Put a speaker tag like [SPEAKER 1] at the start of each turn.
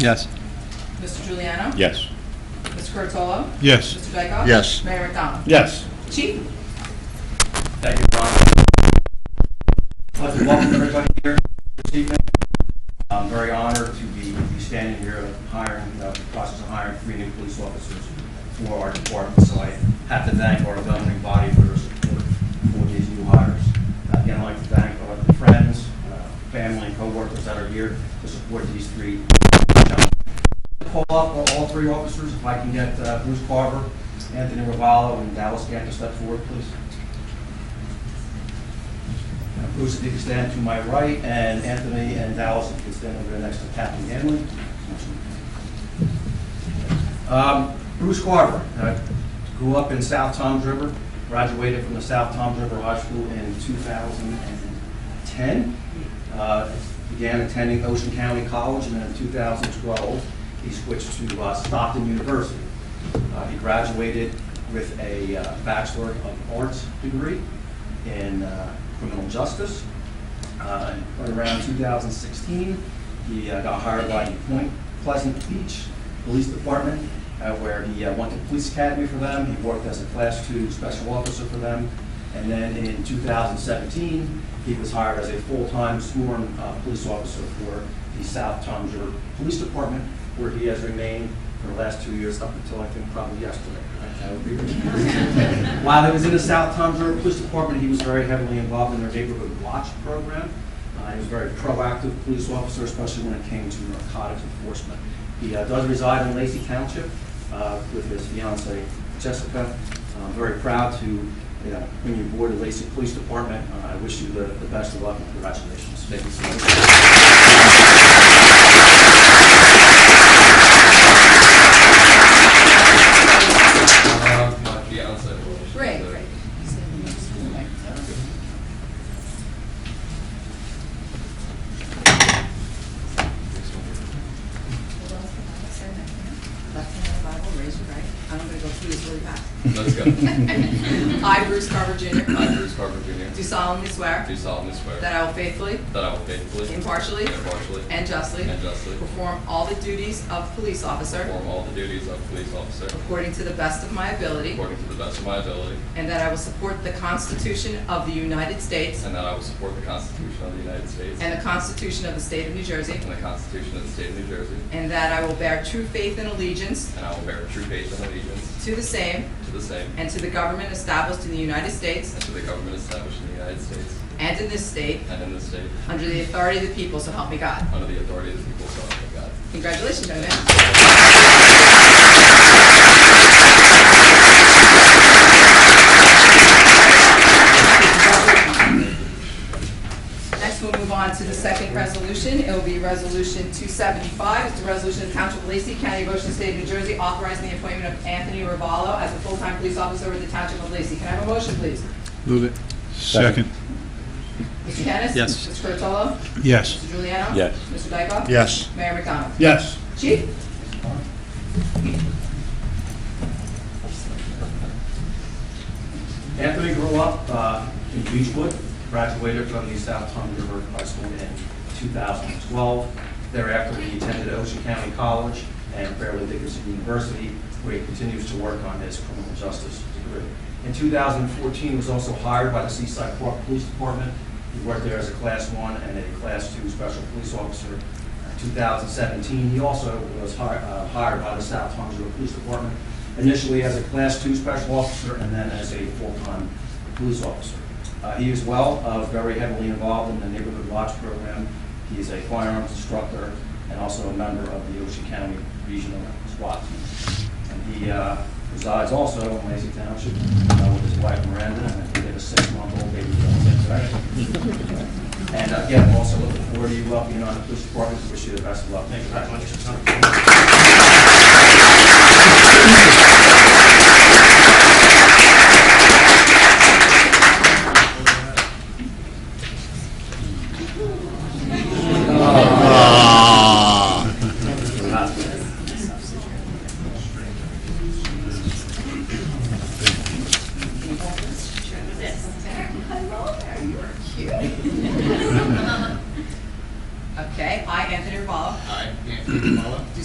[SPEAKER 1] Yes.
[SPEAKER 2] Mr. Juliano?
[SPEAKER 3] Yes.
[SPEAKER 2] Mr. Curatolo?
[SPEAKER 1] Yes.
[SPEAKER 2] Mr. Dykoff?
[SPEAKER 4] Yes.
[SPEAKER 2] Mayor McDonald?
[SPEAKER 3] Yes.
[SPEAKER 2] Chief?
[SPEAKER 5] Thank you, Ron. I'd like to welcome everybody here this evening. I'm very honored to be be standing here hiring, uh, the process of hiring three new police officers for our department. So I have to thank our governing body for their support for these new hires. Again, I'd like to thank all the friends, uh, family, and coworkers that are here to support these three gentlemen call up all three officers, if I can get uh, Bruce Carver, Anthony Ravallo, and Dallas Gann to step forward, please. Now, Bruce, if you can stand to my right, and Anthony and Dallas, if you can stand over there next to Captain Hanlon. Um, Bruce Carver, uh, grew up in South Toms River, graduated from the South Toms River High School in 2010. Uh, Began attending Ocean County College, and then in 2012, he switched to uh, Stockton University. Uh, He graduated with a uh, Bachelor of Arts degree in uh, criminal justice. Uh, and Around 2016, he uh, got hired by the Point Pleasant Beach Police Department, uh, where he uh, went to police academy for them. He worked as a Class Two Special Officer for them. And then in 2017, he was hired as a full-time sworn uh, police officer for the South Toms River Police Department, where he has remained for the last two years up until I think probably yesterday. That would be- While he was in the South Toms River Police Department, he was very heavily involved in their neighborhood watch program. Uh, He was a very proactive police officer, especially when it came to narcotics enforcement. He uh, does reside in Lacey Township uh, with his fiancee Jessica. I'm very proud to you know, bring you aboard the Lacey Police Department. Uh, I wish you the the best of luck and congratulations. Thank you so much.
[SPEAKER 6] my fiance will.
[SPEAKER 2] Great. Left hand on the Bible, raise your right. I'm going to go through this really fast.
[SPEAKER 6] Let's go.
[SPEAKER 2] I, Bruce Carver Jr.,
[SPEAKER 6] I, Bruce Carver
[SPEAKER 2] do
[SPEAKER 6] Jr.,
[SPEAKER 2] solemnly swear
[SPEAKER 6] do solemnly swear
[SPEAKER 2] that I will faithfully,
[SPEAKER 6] that I will faithfully,
[SPEAKER 2] impartially,
[SPEAKER 6] impartially,
[SPEAKER 2] and justly
[SPEAKER 6] and justly
[SPEAKER 2] perform all the duties of police officer
[SPEAKER 6] perform all the duties of police officer
[SPEAKER 2] according to the best of my ability,
[SPEAKER 6] according to the best of my ability,
[SPEAKER 2] and that I will support the Constitution of the United States
[SPEAKER 6] and that I will support the Constitution of the United States
[SPEAKER 2] and the Constitution of the State of New Jersey,
[SPEAKER 6] and the Constitution of the State of New Jersey,
[SPEAKER 2] and that I will bear true faith and allegiance
[SPEAKER 6] and I will bear true faith and allegiance
[SPEAKER 2] to the same
[SPEAKER 6] to the same
[SPEAKER 2] and to the government established in the United States
[SPEAKER 6] and to the government established in the United States
[SPEAKER 2] and in this state,
[SPEAKER 6] and in this state,
[SPEAKER 2] under the authority of the people, so help me God.
[SPEAKER 6] under the authority of the people, so help me God.
[SPEAKER 2] Congratulations, young man. Next, we'll move on to the second resolution. It will be Resolution 275. It's a resolution of the Township of Lacey, County, of Ocean State, of New Jersey, authorizing the appointment of Anthony Ravallo as a full-time police officer with the Township of Lacey. Can I have a motion, please?
[SPEAKER 1] Move it. Second.
[SPEAKER 2] Mr. Kennis?
[SPEAKER 1] Yes.
[SPEAKER 2] Mr. Curatolo?
[SPEAKER 1] Yes.
[SPEAKER 2] Mr. Juliano?
[SPEAKER 3] Yes.
[SPEAKER 2] Mr. Dykoff?
[SPEAKER 4] Yes.
[SPEAKER 2] Mayor McDonald?
[SPEAKER 3] Yes.
[SPEAKER 2] Chief?
[SPEAKER 5] Anthony grew up uh, in Beechwood, graduated from the South Tom River High School in 2012. Thereafter, he attended Ocean County College and Fairleigh Dickinson University, where he continues to work on his criminal justice degree. In 2014, he was also hired by the Seaside Park Police Department. He worked there as a Class 1 and a Class 2 Special Police Officer. In 2017, he also was hi- uh, hired by the South Tom River Police Department, initially as a Class 2 Special Officer and then as a full-time police officer. Uh, He is well, uh, very heavily involved in the Neighborhood Watch Program. He is a firearms instructor and also a member of the Ocean County Regional SWAT Team. And he uh, resides also in Lacey Township uh, with his wife Miranda, and I think they have a six-month-old baby girl. And uh, again, also looking forward to you welcoming on the police department. Wish you the best of luck. Thank you very much.
[SPEAKER 2] Okay, I, Anthony Ravallo,
[SPEAKER 6] I, Anthony Anthony Capella.